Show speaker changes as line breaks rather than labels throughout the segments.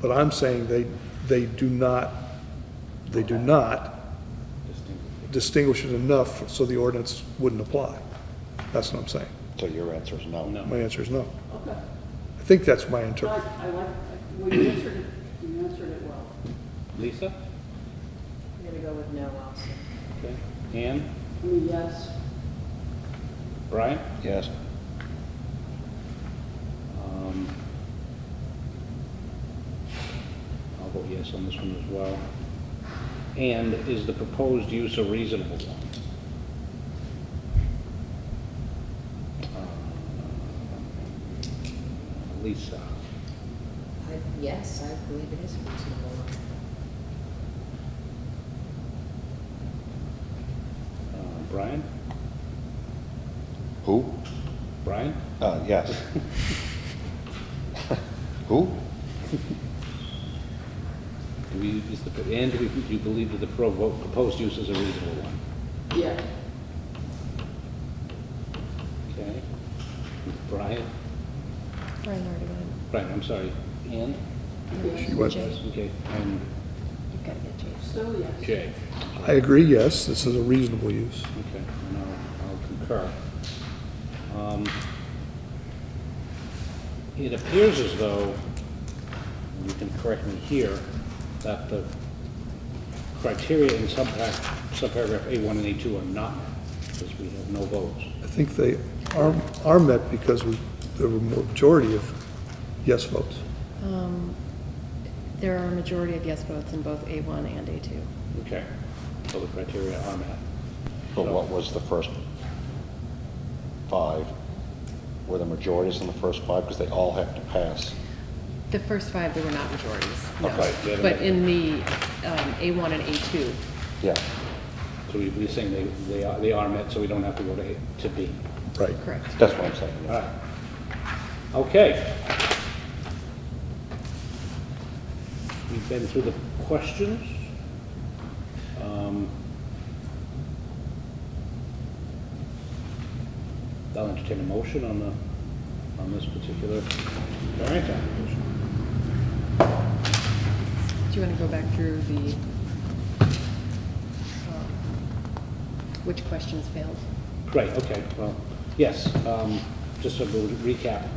But I'm saying they, they do not, they do not distinguish it enough so the ordinance wouldn't apply. That's what I'm saying.
So your answer is
Oh,
no?
My answer is no. I think that's my
I
interpretation.
I like, well, you answered it, you answered it well.
Lisa?
I'm gonna go with no also.
Okay. Ann?
I mean, yes,
Brian?
Yes.
Um, I'll vote yes on this one as well. And is the proposed use a reasonable one? Uh, Lisa?
I, yes, I believe it is reasonable.
Uh, Brian?
Who?
Brian?
Uh, yes. Who?
Do we, is the, and do we- do you believe that the provo- proposed use is a reasonable one?
yeah.
Okay. Brian?
Brian already went.
Brian, I'm sorry. Ann?
She went,
Okay, and
You've got to get Jason.
Still yes.
Jay?
I agree, yes, this is a reasonable use.
Okay, and I'll, I'll concur. Um, It appears as though, and you can correct me here, that the criteria in subparagraph, subparagraph A1 and A2 are not, met, because we have no votes.
I think they are, are met because we, there were majority of yes votes.
Um, There are a majority of yes votes in both A1 and A2.
Okay, so the criteria are met.
But what was the first five? Were the majorities in the first five? Because they all have to pass.
The first five, there were not majorities, no.
Okay,
yeah, they-
But in the um, A1 and A2,
Yeah.
So we- we're saying they, they are, they are met, so we don't have to go to, A- to B.
Right.
correct.
That's what I'm saying.
All right. Okay. We've been through the questions. Um, I'll entertain a motion on the, on this particular variance application.
Do you want to go back through the, um, which questions failed?
Great, okay, well, yes, um, just a little recap.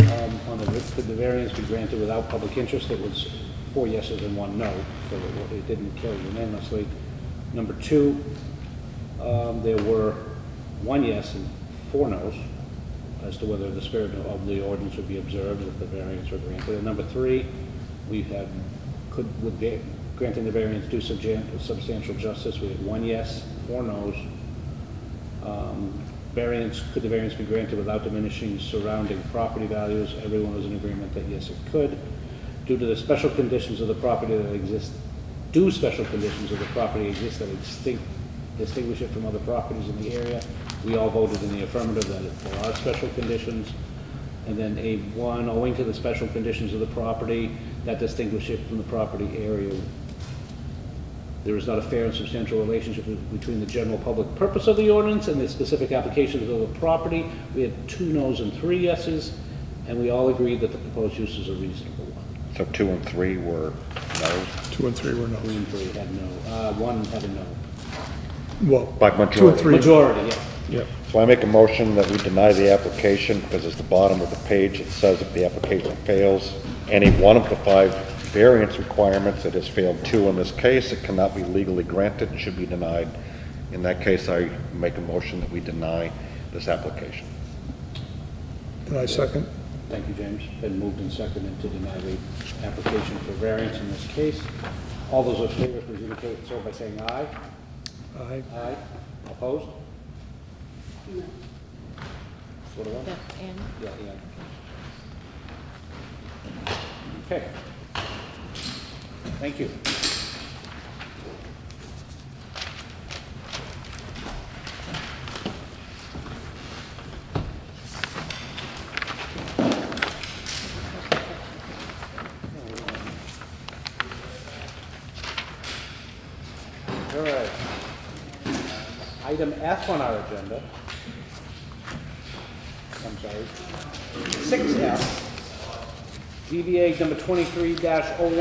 Um, On the, could the variance be granted without public interest? It was four yeses and one no, so it- it didn't carry unanimously. Number two, um, there were one yes and four no's as to whether the spirit of the ordinance would be observed if the variance were granted. And number three, we had, could, would va- granting the variance do subjan- substantial justice? We had one yes, four no's, um, Variance, could the variance be granted without diminishing surrounding property values? Everyone was in agreement that yes, it could. Due to the special conditions of the property that exist, do special conditions of the property exist that extinct- distinguish it from other properties in the area? We all voted in the affirmative that there are special conditions. And then A1, owing to the special conditions of the property that distinguish it from the property area, there is not a fair and substantial relationship be- between the general public purpose of the ordinance and the specific applications of the property. We had two no's and three yeses, and we all agreed that the proposed use is a reasonable one.
So two and three were no's
Two and three were
Two
no's.
and three had no, uh, one had a no.
Well,
by majority.
two and three.
Majority, yeah.
Yeah.
So I make a motion that we deny the application because it's the bottom of the page. It says if the application fails any one of the five variance requirements, it has failed two in this case, it cannot be legally granted, it should be denied. In that case, I make a motion that we deny this application.
And I second.
Thank you, James. Been moved and seconded to deny the application for variance in this case. All those in favor, please indicate so by saying aye.
Aye.
Aye. Opposed? Four to one?
And
Yeah, yeah. Okay. Thank you. All right. Item F on our agenda. I'm sorry. Six F DBA number twenty-three dash oh